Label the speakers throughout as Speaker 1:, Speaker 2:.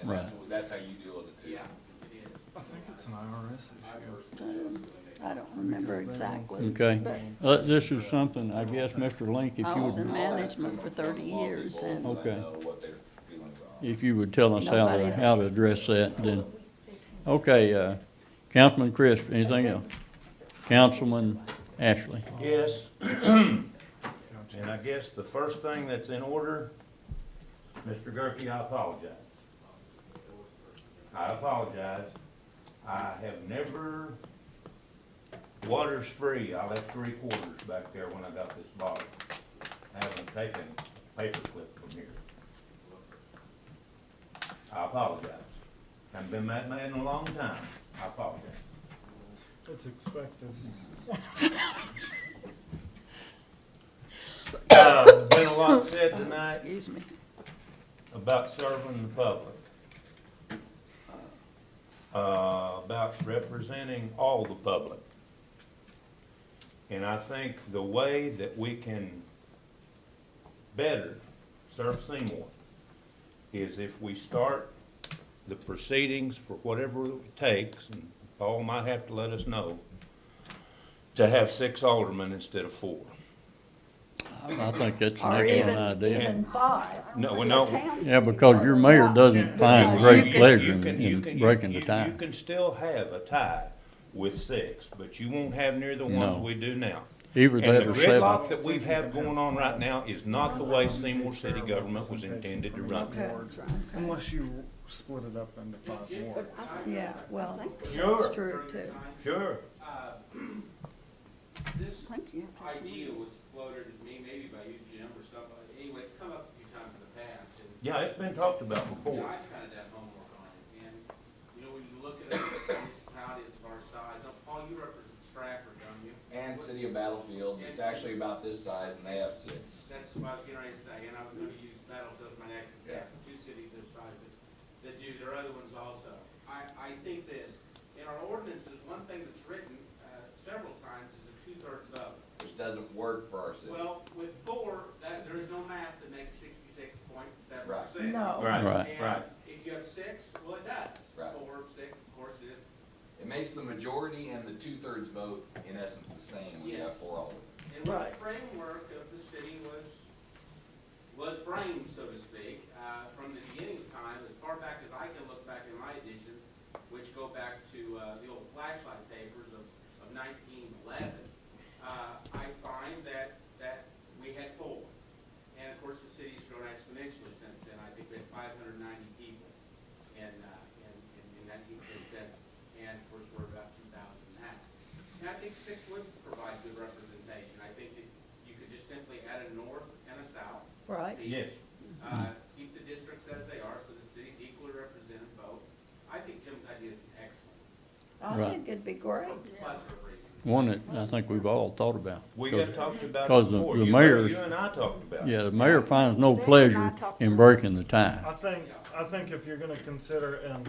Speaker 1: And that's,
Speaker 2: Right.
Speaker 1: what- that's how you deal with it too.
Speaker 3: Yeah, it is.
Speaker 4: I think it's an IRS issue.
Speaker 5: I don't remember exactly.
Speaker 2: Okay,
Speaker 5: But
Speaker 2: Uh, this is something, I guess, Mr. Link, if
Speaker 5: I
Speaker 2: you,
Speaker 5: was in
Speaker 2: would-
Speaker 5: management for thirty years and
Speaker 2: Okay.
Speaker 1: I know what their feelings are.
Speaker 2: if you would tell us how to,
Speaker 5: Nobody-
Speaker 2: how to address that, then. Okay, uh, Councilman Crisp, anything else? Councilman Ashley,
Speaker 6: Yes. And I guess the first thing that's in order, Mr. Gerke, I apologize. I apologize. I have never, water's free. I left three quarters back there when I got this bottle. I haven't taken a paperclip from here. I apologize. Haven't been that mad in a long time. I apologize.
Speaker 4: It's expected.
Speaker 6: Uh, Been a lot said tonight.
Speaker 5: Excuse me.
Speaker 6: about serving the public, uh, about representing all the public. And I think the way that we can better serve Seymour is if we start the proceedings for whatever it takes, and Paul might have to let us know, to have six aldermen instead of four.
Speaker 2: I think that's an
Speaker 5: Or
Speaker 2: excellent
Speaker 5: even,
Speaker 2: idea.
Speaker 5: even five.
Speaker 6: No,
Speaker 5: for
Speaker 6: no.
Speaker 5: the county.
Speaker 2: Yeah, because your mayor doesn't find great
Speaker 6: You can-
Speaker 2: pleasure
Speaker 6: you
Speaker 2: in-
Speaker 6: can- you can-
Speaker 2: in
Speaker 6: you-
Speaker 2: breaking the
Speaker 6: you- You
Speaker 2: tie.
Speaker 6: can still have a tie with six, but you won't have near the ones
Speaker 2: No.
Speaker 6: we do now.
Speaker 2: Either
Speaker 6: And
Speaker 2: that
Speaker 6: the
Speaker 2: or seven.
Speaker 6: gridlock that we have going on right now is not the way Seymour City government was intended to run.
Speaker 5: Okay.
Speaker 4: Unless you split it up into five more.
Speaker 5: Yeah, well,
Speaker 6: Sure.
Speaker 5: that's true too.
Speaker 6: Sure,
Speaker 3: Uh, This
Speaker 5: I think you have to
Speaker 3: idea was floated to me, maybe by you, Jim, or somebody. Anyway, it's come up a few times in the past, and
Speaker 6: yeah, it's been talked about
Speaker 3: you know,
Speaker 6: before.
Speaker 3: I've kind of done homework on it. And, you know, when you look at other municipalities of our size, uh, Paul, you represent Stratford, don't you?
Speaker 1: And City of Battlefield, it's actually about this size and they have six.
Speaker 3: That's what I was getting ready to say, and I was gonna use Battlefield as my next example, two cities this size that, that do their other ones also. I, I think this, in our ordinances, one thing that's written, uh, several times is a two-thirds vote.
Speaker 1: Which doesn't work for our city.
Speaker 3: Well, with four, that, there is no math that makes sixty-six point seven
Speaker 1: Right.
Speaker 3: percent.
Speaker 6: Right,
Speaker 2: Right.
Speaker 3: And
Speaker 6: right.
Speaker 3: if you have six, well, it does.
Speaker 1: Right.
Speaker 3: Four, six, of course, it is,
Speaker 1: It makes the majority and the two-thirds vote in essence the same when you have
Speaker 3: Yes.
Speaker 1: four aldermen.
Speaker 3: And what
Speaker 5: Right.
Speaker 3: the framework of the city was, was framed, so to speak, uh, from the beginning of time, as far back as I can look back in my editions, which go back to, uh, the old flashlight papers of, of nineteen eleven, uh, I find that, that we had four. And of course, the city's grown exponentially since then. I think we had five hundred ninety people in, uh, in, in the nineteen ten census. And of course, we're about two thousand now. And I think six would provide good representation. I think that you could just simply add a north and a south.
Speaker 5: Right.
Speaker 3: seat,
Speaker 6: Yes, Hmm.
Speaker 3: Uh, keep the districts as they are, so the city's equally represented both. I think Jim's idea is excellent,
Speaker 5: I
Speaker 2: Right.
Speaker 5: think it'd be great.
Speaker 3: for a plethora of reasons.
Speaker 2: One that I think we've all thought about.
Speaker 6: we
Speaker 2: because-
Speaker 6: have talked about it
Speaker 2: because the-
Speaker 6: before.
Speaker 2: the
Speaker 6: You-
Speaker 2: mayor's-
Speaker 6: You and I talked about it.
Speaker 2: Yeah, the mayor finds no pleasure in breaking the tie.
Speaker 4: I think, I think if you're gonna consider, and,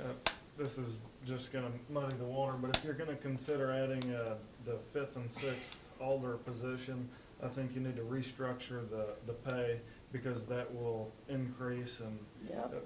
Speaker 4: uh, this is just gonna muddy the water, but if you're gonna consider adding, uh, the fifth and sixth alder position, I think you need to restructure the, the pay, because that will increase and, uh,
Speaker 5: Yep.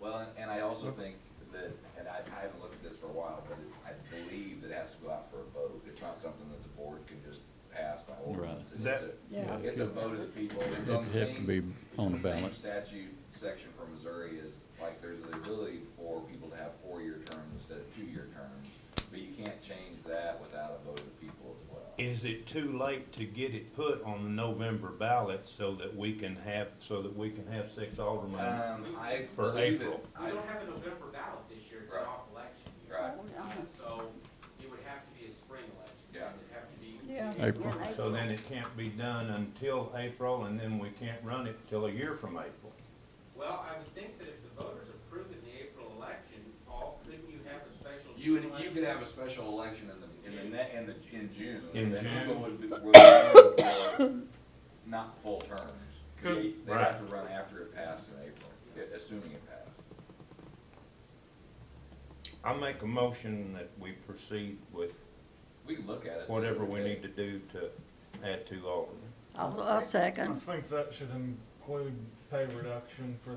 Speaker 1: Well, and- and I also think that, and I, I haven't looked at this for a while, but it- I believe that it has to go out for a vote. It's not something that the board can just pass by ordinance. It's
Speaker 6: That-
Speaker 1: a-
Speaker 5: Yeah.
Speaker 1: It's a vote of the people. It's
Speaker 2: It'd
Speaker 1: on the
Speaker 2: have to
Speaker 1: same-
Speaker 2: be
Speaker 1: it's
Speaker 2: on
Speaker 1: the
Speaker 2: the
Speaker 1: same
Speaker 2: ballot.
Speaker 1: Statute section for Missouri is, like, there's the ability for people to have four-year terms instead of two-year terms, but you can't change that without a vote of the people as well.
Speaker 6: Is it too late to get it put on the November ballot so that we can have, so that we can have six aldermen?
Speaker 1: Um, I
Speaker 6: For
Speaker 1: believe
Speaker 6: April.
Speaker 1: that,
Speaker 3: We
Speaker 1: I,
Speaker 3: don't have a November ballot this year, it's
Speaker 1: Right.
Speaker 3: an off-election year.
Speaker 1: right,
Speaker 5: Oh,
Speaker 3: Uh,
Speaker 5: yeah.
Speaker 3: So it would have to be a spring election.
Speaker 1: Yeah.
Speaker 3: It'd have to be.
Speaker 5: Yeah.
Speaker 2: April.
Speaker 5: Yeah,
Speaker 6: So then it can't be done until April, and then we can't run it till a year from April.
Speaker 3: Well, I would think that if the voters approve it in the April election, Paul, couldn't you have a special?
Speaker 1: you would, you
Speaker 3: election?
Speaker 1: could have a special election in the, in the, ne- in the, in June.
Speaker 6: In
Speaker 1: that
Speaker 6: June.
Speaker 1: people would be- would be running for Not full terms.
Speaker 4: Could-
Speaker 1: They, they
Speaker 6: Right.
Speaker 1: have to run after it passed in April, i- assuming it passed.
Speaker 6: I make a motion that we proceed with
Speaker 1: We can look at it. see
Speaker 6: whatever
Speaker 1: what
Speaker 6: we need
Speaker 1: it
Speaker 6: to do to add two aldermen.
Speaker 5: I'll, I'll
Speaker 4: I
Speaker 5: second.
Speaker 4: think that should include pay reduction for